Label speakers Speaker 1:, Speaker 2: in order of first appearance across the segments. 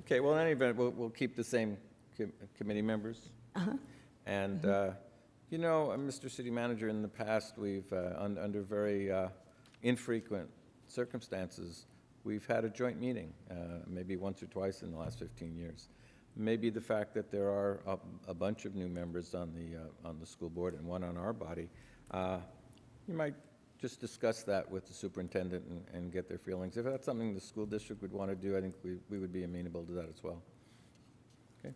Speaker 1: Okay, well, in any event, we'll, we'll keep the same com- committee members. And, uh, you know, uh, Mr. City Manager, in the past, we've, uh, un- under very uh, infrequent circumstances, we've had a joint meeting, uh, maybe once or twice in the last 15 years. Maybe the fact that there are a- a bunch of new members on the, uh, on the school board and one on our body, uh, you might just discuss that with the superintendent and- and get their feelings. If that's something the school district would want to do, I think we we would be amenable to that as well. Okay?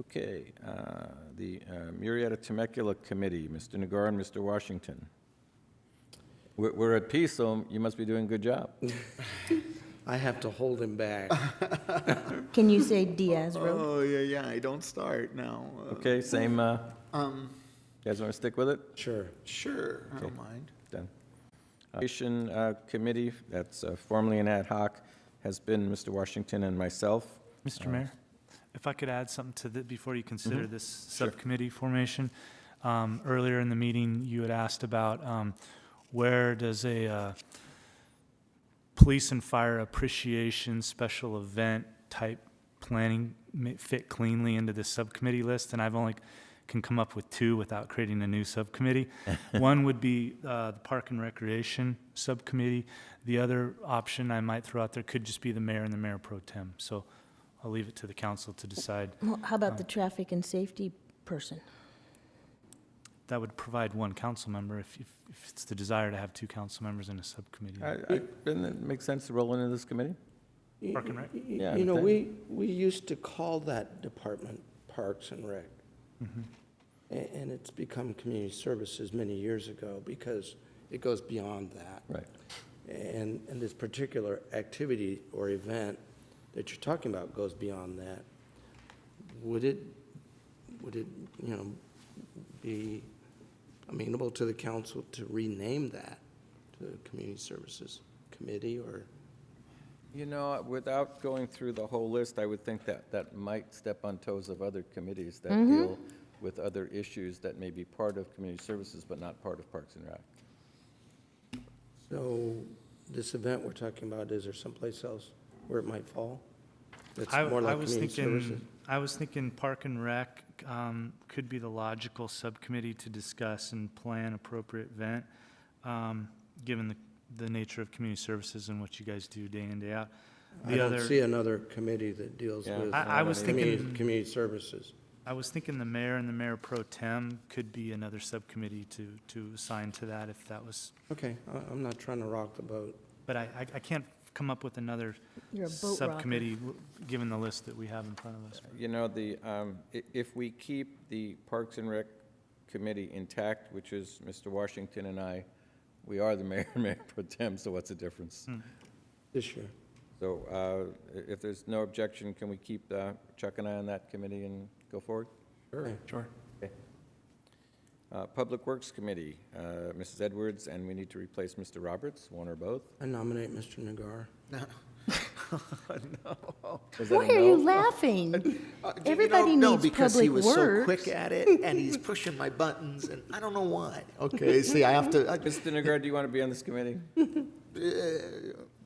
Speaker 1: Okay, uh, the uh, Murrieta Temecula Committee, Mr. Nagar and Mr. Washington. We're- We're at peace, so you must be doing a good job.
Speaker 2: I have to hold him back.
Speaker 3: Can you say Diaz Road?
Speaker 4: Oh, yeah, yeah, I don't start now. Uh,
Speaker 1: Okay, same, uh,
Speaker 4: Um,
Speaker 1: you guys want to stick with it?
Speaker 2: Sure.
Speaker 4: sure, I
Speaker 1: Okay.
Speaker 4: don't mind.
Speaker 1: Done. Education uh, Committee, that's uh, formerly an ad hoc, has been Mr. Washington and myself.
Speaker 5: Mr. Mayor, Uh, if I could add something to the, before you consider this subcommittee formation. Um, Earlier in the meeting, you had asked about um, where does a uh, police and fire appreciation special event type planning ma- fit cleanly into this subcommittee list? And I've only can come up with two without creating a new subcommittee. One would be uh, the Park and Recreation Subcommittee. The other option I might throw out there could just be the mayor and the mayor pro tem. So I'll leave it to the council to decide.
Speaker 3: Well, How about the traffic and safety person?
Speaker 5: That would provide one council member if, if if it's the desire to have two council members in a subcommittee.
Speaker 1: I- I- Doesn't it make sense to roll into this committee?
Speaker 5: Park and Rec?
Speaker 1: Yeah, I
Speaker 2: You know,
Speaker 1: would
Speaker 2: we, we used to call that department Parks and Rec. A- And it's become Community Services many years ago because it goes beyond that.
Speaker 1: Right.
Speaker 2: And, and this particular activity or event that you're talking about goes beyond that. Would it, would it, you know, be amenable to the council to rename that to the Community Services Committee or?
Speaker 1: You know, without going through the whole list, I would think that that might step on toes of other committees that deal with other issues that may be part of community services but not part of Parks and Rec.
Speaker 2: So this event we're talking about, is there someplace else where it might fall? That's
Speaker 5: I,
Speaker 2: more
Speaker 5: I
Speaker 2: like
Speaker 5: was
Speaker 2: community services?
Speaker 5: thinking, I was thinking Park and Rec um, could be the logical subcommittee to discuss and plan appropriate event, um, given the, the nature of community services and what you guys do day in, day out.
Speaker 2: I
Speaker 5: The
Speaker 2: don't see
Speaker 5: other,
Speaker 2: another committee that deals
Speaker 1: Yeah.
Speaker 2: with. uh,
Speaker 5: I- I was
Speaker 2: community-
Speaker 5: thinking-
Speaker 2: Community services.
Speaker 5: I was thinking the mayor and the mayor pro tem could be another subcommittee to, to assign to that if that was,
Speaker 2: Okay, I- I'm not trying to rock the boat.
Speaker 5: but I, I- I can't come up with another
Speaker 3: You're a boat rocker.
Speaker 5: subcommittee, w- given the list that we have in front of us.
Speaker 1: You know, the, um, i- if we keep the Parks and Rec committee intact, which is Mr. Washington and I, we are the mayor and mayor pro tem, so what's the difference?
Speaker 2: This year,
Speaker 1: So uh, i- if there's no objection, can we keep uh, Chuck and I on that committee and go forward?
Speaker 2: sure.
Speaker 5: Sure.
Speaker 1: Uh, Public Works Committee, uh, Mrs. Edwards, and we need to replace Mr. Roberts, one or both.
Speaker 2: I nominate Mr. Nagar.
Speaker 4: Uh,
Speaker 1: Is that a
Speaker 3: Why are you
Speaker 1: no?
Speaker 3: laughing?
Speaker 4: Uh, d- you know,
Speaker 3: Everybody
Speaker 4: no,
Speaker 3: needs
Speaker 4: because he
Speaker 3: public
Speaker 4: was so quick
Speaker 3: works.
Speaker 4: at it, and he's pushing my buttons, and I don't know why. Okay, see, I have to. I-
Speaker 1: Mr. Nagar, do you want to be on this committee?
Speaker 4: uh,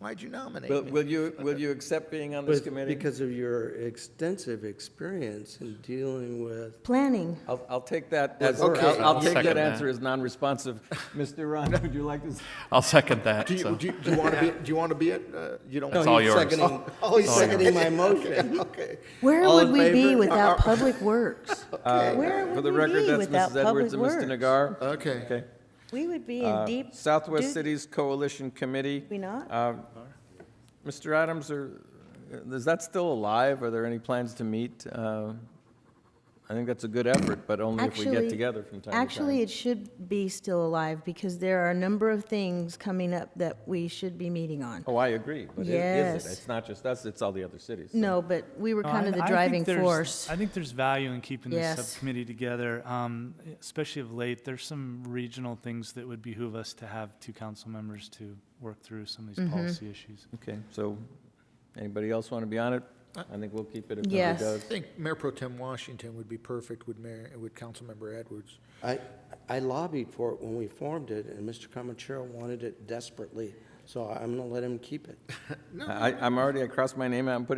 Speaker 4: why'd you nominate
Speaker 1: Will
Speaker 4: me?
Speaker 1: will you, will you accept being on this
Speaker 2: With-
Speaker 1: committee?
Speaker 2: Because of your extensive experience in dealing with,
Speaker 3: Planning.
Speaker 1: I'll, I'll take that, as-
Speaker 4: Okay.
Speaker 1: I'll I'll take that
Speaker 6: Second that.
Speaker 1: answer as non-responsive. Mr. Ron, would you like to? s-
Speaker 6: I'll second that.
Speaker 4: Do you,
Speaker 6: so.
Speaker 4: do you, do you want to be? Do you want to be it? Uh, you don't.
Speaker 6: It's
Speaker 4: want-
Speaker 6: all yours.
Speaker 4: Seconding, oh, he's
Speaker 6: all yours.
Speaker 4: seconding my
Speaker 2: motion.
Speaker 4: Okay.
Speaker 3: Where
Speaker 2: All
Speaker 3: would
Speaker 2: in
Speaker 3: we be
Speaker 2: favor?
Speaker 4: Uh,
Speaker 3: without Public Works? Where
Speaker 1: uh, For
Speaker 3: would
Speaker 1: the
Speaker 3: we
Speaker 1: record,
Speaker 3: be
Speaker 1: that's
Speaker 3: without
Speaker 1: Mrs. Edwards
Speaker 3: Public
Speaker 1: and Mr.
Speaker 3: Works?
Speaker 1: Nagar.
Speaker 4: Okay.
Speaker 1: Okay.
Speaker 3: We would be in deep.
Speaker 1: Uh, Southwest
Speaker 3: doo-
Speaker 1: Cities Coalition Committee.
Speaker 3: We not?
Speaker 1: Uh, Mr. Adams, are, is that still alive? Are there any plans to meet? Uh, I think that's a good effort, but only if we get
Speaker 3: Actually-
Speaker 1: together from time to time.
Speaker 3: Actually, it should be still alive because there are a number of things coming up that we should be meeting on.
Speaker 1: Oh, I agree, but it isn't.
Speaker 3: Yes.
Speaker 1: It's not just us, it's all the other cities. so-
Speaker 3: No, but we were
Speaker 5: No,
Speaker 3: kind
Speaker 5: Oh, I-
Speaker 3: of the
Speaker 5: I think
Speaker 3: driving
Speaker 5: there's-
Speaker 3: force.
Speaker 5: I think there's value in keeping this
Speaker 3: Yes.
Speaker 5: subcommittee together, um, especially of late. There's some regional things that would behoove us to have two council members to work through some of these
Speaker 3: Mm-hmm.
Speaker 5: policy issues.
Speaker 1: Okay, so anybody else want to be on it? I think we'll keep it if
Speaker 3: Yes.
Speaker 1: nobody does.
Speaker 7: I think Mayor Pro Tem Washington would be perfect with Mayor, with Councilmember Edwards.
Speaker 2: I, I lobbied for it when we formed it, and Mr. Comachero wanted it desperately, so I'm going to let him keep it.
Speaker 1: I, I'm already, I crossed my name out and put